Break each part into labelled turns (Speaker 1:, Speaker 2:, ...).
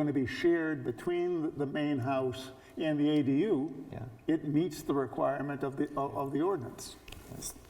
Speaker 1: going to be shared between the- the main house and the ADU,
Speaker 2: Yeah.
Speaker 1: it meets the requirement of the, of of the ordinance.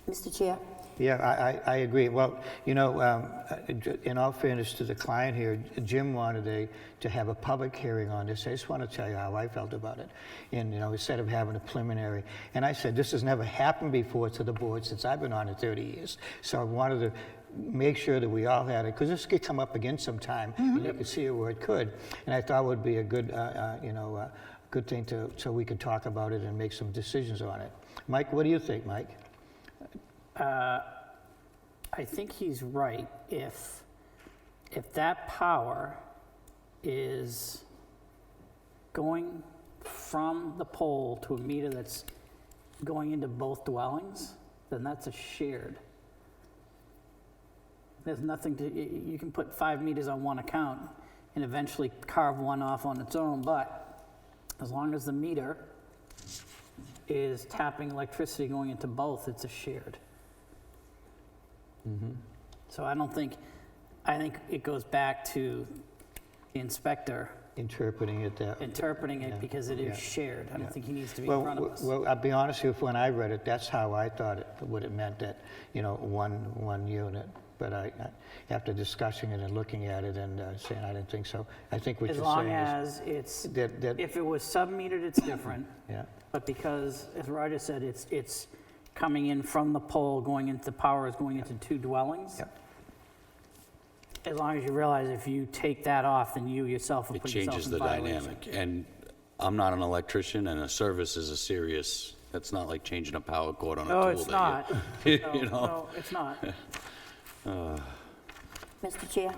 Speaker 3: Mr. Chair,
Speaker 2: Yeah, I, I, I agree. Well, you know, um, uh, j- in all fairness to the client here, Jim wanted a, to have a public hearing on this. I just want to tell you how I felt about it. And, you know, instead of having a preliminary, and I said, this has never happened before to the board since I've been on it 30 years. So I wanted to make sure that we all had it, because this could come up again sometime, and you could see it where it could. And I thought it would be a good, uh, uh, you know, uh, good thing to, so we could talk about it and make some decisions on it. Mike, what do you think, Mike?
Speaker 4: I think he's right. If, if that power is going from the pole to a meter that's going into both dwellings, then that's a shared. There's nothing to, y- y- you can put five meters on one account and eventually carve one off on its own, but as long as the meter is tapping electricity going into both, it's a shared. So I don't think, I think it goes back to the inspector
Speaker 2: Interpreting it that
Speaker 4: interpreting it because it
Speaker 2: yeah,
Speaker 4: is shared. I don't think he needs to be in
Speaker 2: Well,
Speaker 4: front of
Speaker 2: w-
Speaker 4: us.
Speaker 2: well, I'll be honest with you, when I read it, that's how I thought it, what it meant, that, you know, one, one unit. But I, I- after discussing it and looking at it and uh, saying, I didn't think so, I think what
Speaker 4: As
Speaker 2: you're
Speaker 4: long
Speaker 2: saying is.
Speaker 4: as it's,
Speaker 2: That, that,
Speaker 4: if it was sub-metered, it's different,
Speaker 2: yeah,
Speaker 4: but because, as Roger said, it's, it's coming in from the pole, going into, the power is going into two dwellings.
Speaker 2: yeah,
Speaker 4: As long as you realize if you take that off, then you yourself will
Speaker 5: It
Speaker 4: put yourself
Speaker 5: changes
Speaker 4: in
Speaker 5: the
Speaker 4: violation.
Speaker 5: dynamic. And I'm not an electrician, and a service is a serious, that's not like changing a power cord on a tool.
Speaker 4: No, it's
Speaker 5: that
Speaker 4: not.
Speaker 5: you-
Speaker 4: No,
Speaker 5: You know?
Speaker 4: No, it's not.
Speaker 3: Mr. Chair,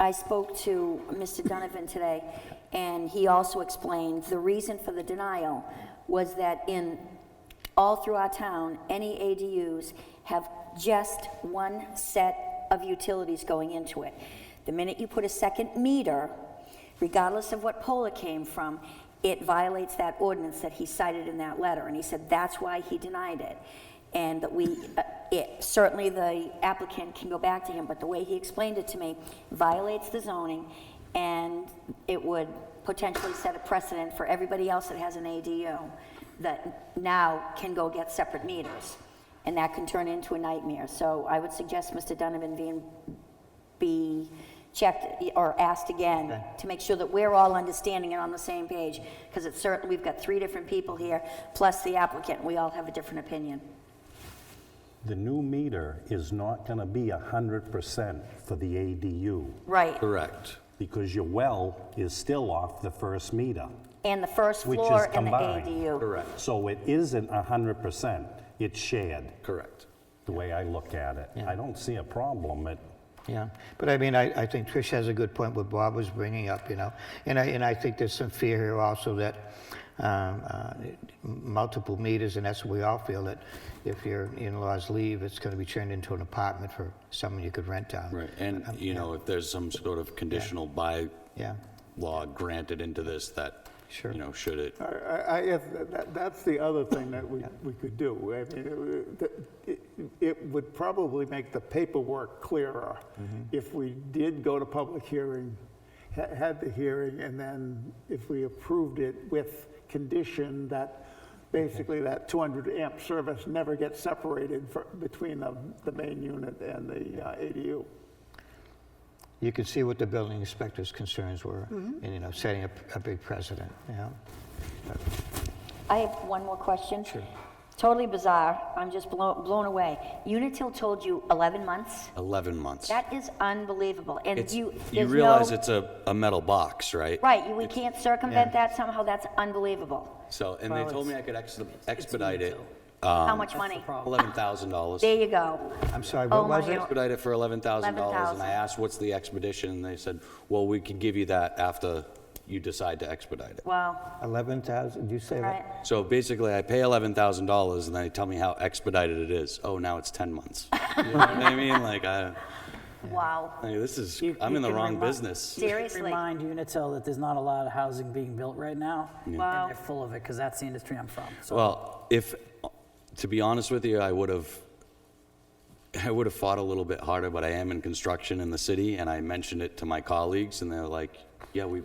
Speaker 3: I spoke to Mr. Donovan today, and he also explained the reason for the denial was that in, all through our town, any ADUs have just one set of utilities going into it. The minute you put a second meter, regardless of what pole it came from, it violates that ordinance that he cited in that letter, and he said that's why he denied it. And that we, uh, it, certainly the applicant can go back to him, but the way he explained it to me violates the zoning, and it would potentially set a precedent for everybody else that has an ADU that now can go get separate meters, and that can turn into a nightmare. So I would suggest Mr. Donovan being be checked or asked again to make sure that we're all understanding and on the same page, because it's certain, we've got three different people here, plus the applicant, we all have a different opinion.
Speaker 6: The new meter is not going to be 100% for the ADU
Speaker 3: Right,
Speaker 5: Correct.
Speaker 6: because your well is still off the first meter,
Speaker 3: and the first
Speaker 6: which is
Speaker 3: floor and the
Speaker 6: combined.
Speaker 3: ADU.
Speaker 5: Correct.
Speaker 6: So it isn't 100%, it's shared,
Speaker 5: Correct.
Speaker 6: the way I look at it. I don't see a problem. It,
Speaker 2: yeah. But I mean, I, I think Trish has a good point what Bob was bringing up, you know? And I, and I think there's some fear here also that um, uh, multiple meters, and that's what we all feel, that if your in-laws leave, it's going to be turned into an apartment for someone you could rent out.
Speaker 5: Right. And, you know, if there's some sort of conditional by
Speaker 2: Yeah.
Speaker 5: law granted into this that,
Speaker 2: Sure.
Speaker 5: you know, should it,
Speaker 1: I- I, I, if- that- that's the other thing that we, we could do. I mean, it- it- It would probably make the paperwork clearer if we did go to public hearing, ha- had the hearing, and then if we approved it with condition that basically that 200 amp service never gets separated for- between the, the main unit and the uh, ADU.
Speaker 2: You could see what the building inspector's concerns were,
Speaker 3: Mm-hmm.
Speaker 2: and, you know, setting a, a big precedent, you know?
Speaker 3: I have one more question. Sure. Totally bizarre, I'm just blown, blown away. Unitil told you 11 months?
Speaker 5: 11 months.
Speaker 3: That is unbelievable, and
Speaker 5: It's-
Speaker 3: you,
Speaker 5: You
Speaker 3: there's no...
Speaker 5: realize it's a, a metal box, right?
Speaker 3: Right, you- we can't circumvent that somehow, that's unbelievable.
Speaker 5: So, and they
Speaker 4: Well,
Speaker 5: told me
Speaker 4: it's-
Speaker 5: I could ex- expedite it, Um,
Speaker 3: How much
Speaker 4: That's the
Speaker 3: money?
Speaker 4: problem.
Speaker 5: $11,000.
Speaker 3: There you go.
Speaker 2: I'm sorry,
Speaker 3: Oh
Speaker 2: what was
Speaker 3: my
Speaker 2: it?
Speaker 3: God.
Speaker 5: expedite it for eleven thousand dollars, and I
Speaker 3: $11,000.
Speaker 5: asked, "What's the expedition?" And they said, "Well, we can give you that after you decide to expedite it."
Speaker 3: Wow,
Speaker 2: 11,000, did you say
Speaker 3: all right.
Speaker 2: that?
Speaker 5: So basically, I pay eleven thousand dollars, and they tell me how expedited it is. Oh, now it's ten months. You know what I mean? Like, I,
Speaker 3: Wow,
Speaker 5: like, this is,
Speaker 4: You-
Speaker 5: I'm
Speaker 4: you
Speaker 5: in the
Speaker 4: can
Speaker 5: wrong
Speaker 4: remi-
Speaker 5: business.
Speaker 3: seriously,
Speaker 4: Remind Unitil that there's not a lot of housing being built right now.
Speaker 3: Wow.
Speaker 4: And they're full of it, because that's the industry I'm from. So
Speaker 5: Well, if, to be honest with you, I would have, I would have fought a little bit harder, but I am in construction in the city, and I mentioned it to my colleagues, and they're like, Yeah, we